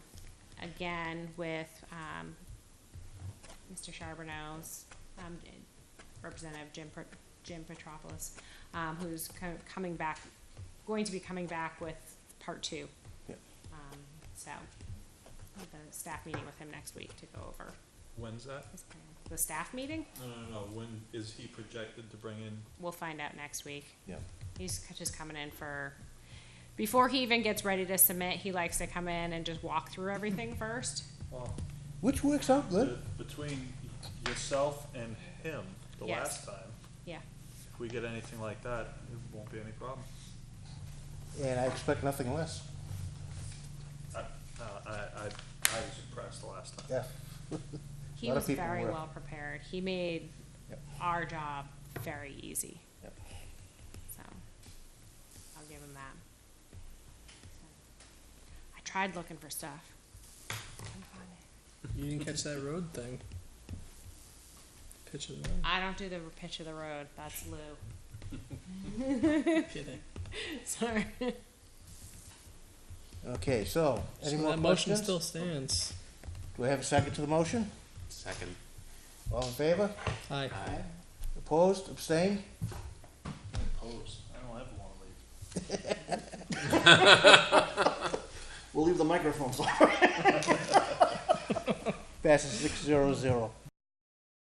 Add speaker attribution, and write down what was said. Speaker 1: again with, um, Mr. Charbonneau's, um, Representative Jim, Pe- Jim Petropoulos, um, who's co- coming back, going to be coming back with part two.
Speaker 2: Yeah.
Speaker 1: Um, so, I have a staff meeting with him next week to go over
Speaker 3: When's that?
Speaker 1: his plan. The staff meeting,
Speaker 3: No, no, no, when is he projected to bring in?
Speaker 1: we'll find out next week.
Speaker 2: Yeah,
Speaker 1: He's c- just coming in for, before he even gets ready to submit, he likes to come in and just walk through everything first.
Speaker 3: Well,
Speaker 2: which works out good.
Speaker 3: between yourself and him, the
Speaker 1: Yes.
Speaker 3: last time,
Speaker 1: Yeah,
Speaker 3: if we get anything like that, it won't be any problem.
Speaker 2: And I expect nothing less.
Speaker 3: I, uh, I, I, I was impressed the last time.
Speaker 2: Yeah.
Speaker 1: he
Speaker 2: Lot of
Speaker 1: was
Speaker 2: people
Speaker 1: very
Speaker 2: were.
Speaker 1: well prepared. He made
Speaker 2: Yep.
Speaker 1: our job very easy,
Speaker 2: Yep.
Speaker 1: so I'll give him that. I tried looking for stuff. Couldn't find it.
Speaker 4: You didn't catch that road thing. Pitch of the road.
Speaker 1: I don't do the pitch of the road. That's Lou.
Speaker 4: Kidding.
Speaker 1: Sorry.
Speaker 2: Okay, so, any
Speaker 4: So
Speaker 2: more
Speaker 4: that motion
Speaker 2: questions?
Speaker 4: still
Speaker 2: Do
Speaker 4: stands.
Speaker 2: we have a second to the motion?
Speaker 5: Second.
Speaker 2: All in favor?
Speaker 4: Aye.
Speaker 5: Aye.
Speaker 2: Opposed, abstained?
Speaker 5: Opposed.
Speaker 3: I don't ever wanna leave.
Speaker 2: We'll leave the microphones on. Passes six zero zero.